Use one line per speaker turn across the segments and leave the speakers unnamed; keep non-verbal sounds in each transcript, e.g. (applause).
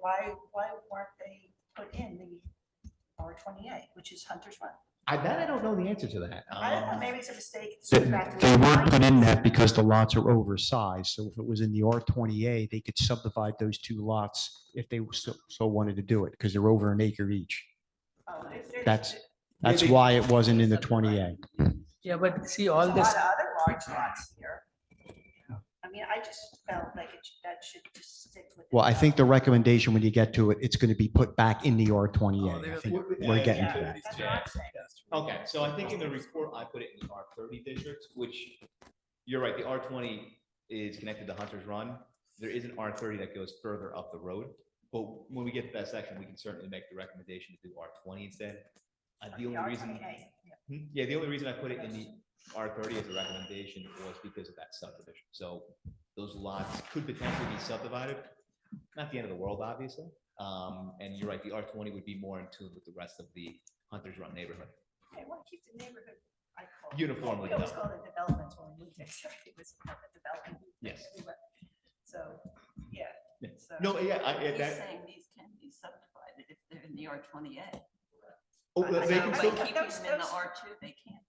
why, why weren't they put in the R twenty-eight, which is Hunter's Run?
I bet I don't know the answer to that.
I don't know,
Um,
maybe it's a mistake. it's
Ah.
just
They
back to
they
the
weren't
line.
put in that because the lots are oversized, so if it was in the R twenty A, they could subdivide those two lots if they so, so wanted to do it, because they're over an acre each.
Oh, there's- there's-
That's, that's
Maybe-
why it wasn't in the twenty A.
Yeah, but see,
There's
all
a
this,
lot of other large lots here. I mean, I just felt like it, should- that should just stick with.
Well, I think the recommendation when you get to it, it's going to be put back in the R twenty
Oh,
A.
they're-
I think
w-
we're
yeah,
getting
Yeah,
to that.
that's what I'm saying.
Okay, so I think in the report, I put it in the R thirty district, which, you're right, the R twenty is connected to Hunter's Run. There is an R thirty that goes further up the road, but when we get to that section, we can certainly make the recommendation to do R twenty instead. Uh, the only reason,
R28, yeah.
Hmm, yeah, the only reason I put it in the R thirty as a recommendation was because of that subdivision. So those lots could potentially be subdivided, not the end of the world, obviously. Um, and you're right, the R twenty would be more in tune with the rest of the Hunter's Run neighborhood.
Hey, why keep the neighborhood? I call it-
Uniformly
We always
done.
call it developments when we moved there, so (laughs) it was part of development.
Yes.
So, yeah.
Yeah.
so-
No, yeah, I, yeah,
He's
that,
saying these can be subdivided if they're in the R twenty A.
oh,
I-
well,
I
they
know,
can
but-
still,
Keeping
those-
them in the
those-
R two, they can't.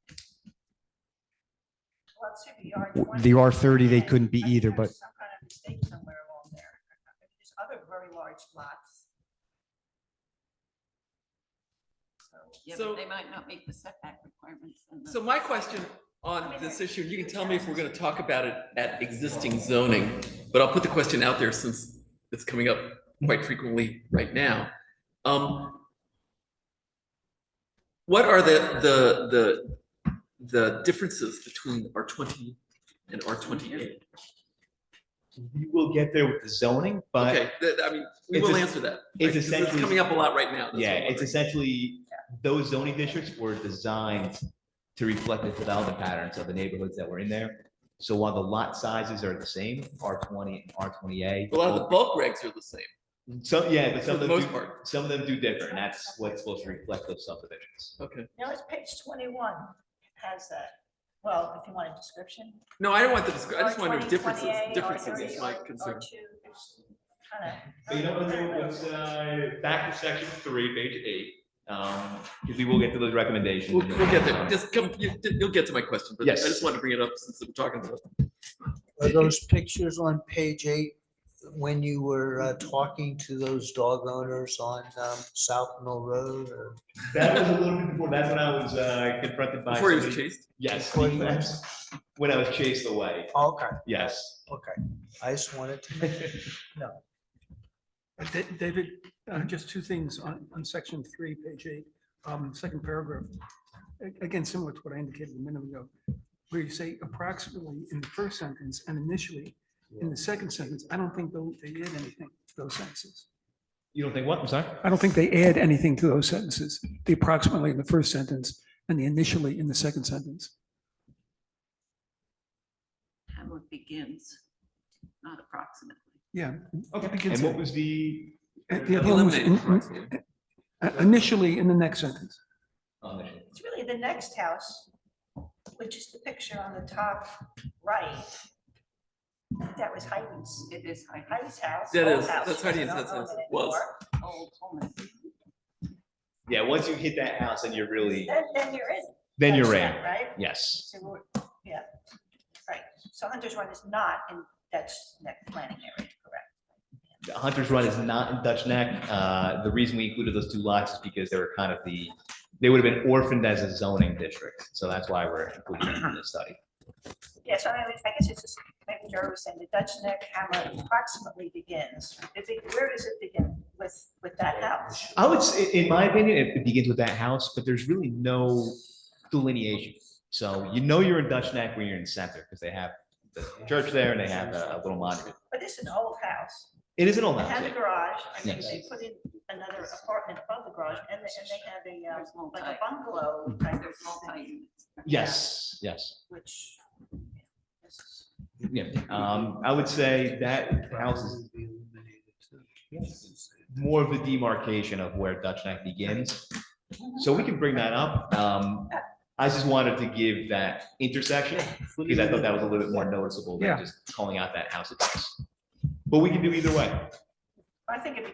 Well, it should be R
W-
20.
The R thirty, they
Okay.
couldn't be
I think
either,
there's
but
Some kind of mistake somewhere along there. There's other very large lots. So,
Yeah,
So-
but they might not meet the setback requirements. and the-
so my question on this issue, you can tell me if we're gonna talk about it at existing zoning, but I'll put the question out there since it's coming up quite frequently right now. Um, what are the, the, the, the differences between R twenty and R twenty-eight?
you will get there with the zoning, but
Okay, that, I mean, we
It's
will
es-
answer that.
it's
right, 'cause
essentially-
Coming up a lot right now. that's
yeah,
what I'm
it's essentially, those zoning districts were designed to reflect the development patterns of the neighborhoods that were in there. So while the lot sizes are the same, R twenty and R twenty A. um,
wondering. A lot of the bulk regs are the same,
Some, yeah, but
for
some of
the
them,
most
do-
part.
some of them do differ, and that's what's supposed to reflect those subdivisions.
Okay.
Now it's page twenty-one has that. Well, if you want a description.
No, I don't want the, disc- I just
R20,
want to differences,
28,
differences
R30,
is my
R-
concern.
R2, there's kinda-
But you know, what's, uh, back to section three, page eight, um, because we will get to those recommendations. Um,
We'll, we'll get there. Just come, you, you'll get to my question, but I
Yes.
just want to bring it up since I'm talking about. it.
Are those pictures on page eight, when you were uh, talking to those dog owners on um, South Mill Road or?
That was a little bit before, that's when I was uh, confronted by.
Before he was
somebody-
chased,
Yes,
Before he was-
(laughs) when I was chased away,
Okay,
yes.
okay. I just wanted to.
Uh, Da- David, uh, just two things on, on section three, page eight, um, second paragraph. A- Again, similar to what I indicated a minute ago, where you say approximately in the first sentence and initially in the second sentence, I don't think tho- they add anything to those sentences.
You don't think what, I'm sorry?
I don't think they add anything to those sentences, the approximately in the first sentence and the initially in the second sentence.
Hamlet begins, not approximately.
Yeah.
Okay,
begins
and what
it.
was the?
Uh, the other one was in-
eliminated correctly.
uh, Initially in the next sentence.
Oh, there she is.
It's really the next house, which is the picture on the top right. That was Heidi's,
It is high,
Heidi's house.
That
old
is,
house,
that's
she doesn't
Heidi's, that's-
own it
that's- was.
anymore.
old home.
Yeah, once you hit that house and you're really,
Then, then you're in.
then you're
That's
in,
that, Right?
yes.
So we're, yeah, right. So Hunter's Run is not in Dutch Neck planning area, correct?
The Hunter's Run is not in Dutch Neck. Uh, the reason we included those two lots is because they were kind of the, they would have been orphaned as a zoning district. So that's why we're including them in the study.
Yeah, so I mean, I guess it's just, maybe Jerry was saying the Dutch Neck hamlet approximately begins. Is it, where does it begin with, with that house?
I would say, in my opinion, it- it begins with that house, but there's really no delineation. So you know you're in Dutch Neck when you're in center because they have the church there and they have a a little monument.
But this is an old house.
It is an old
They
house.
have a
yeah.
garage, I think
Yes.
they put in another apartment above the garage, and they, and they have a,
There's
uh,
multi,
like a bungalow type of
there's multi
thing,
units.
Yes, yes.
which. yeah, this is-
Yeah. Um, I would say that house is
Would be eliminated too.
more of the demarcation of where Dutch Neck begins. So we can bring that up. Um, I just wanted to give that intersection because I thought that was a little bit more noticeable
Yeah.
than just calling out that house. itself. But we can do either way.
I think it begins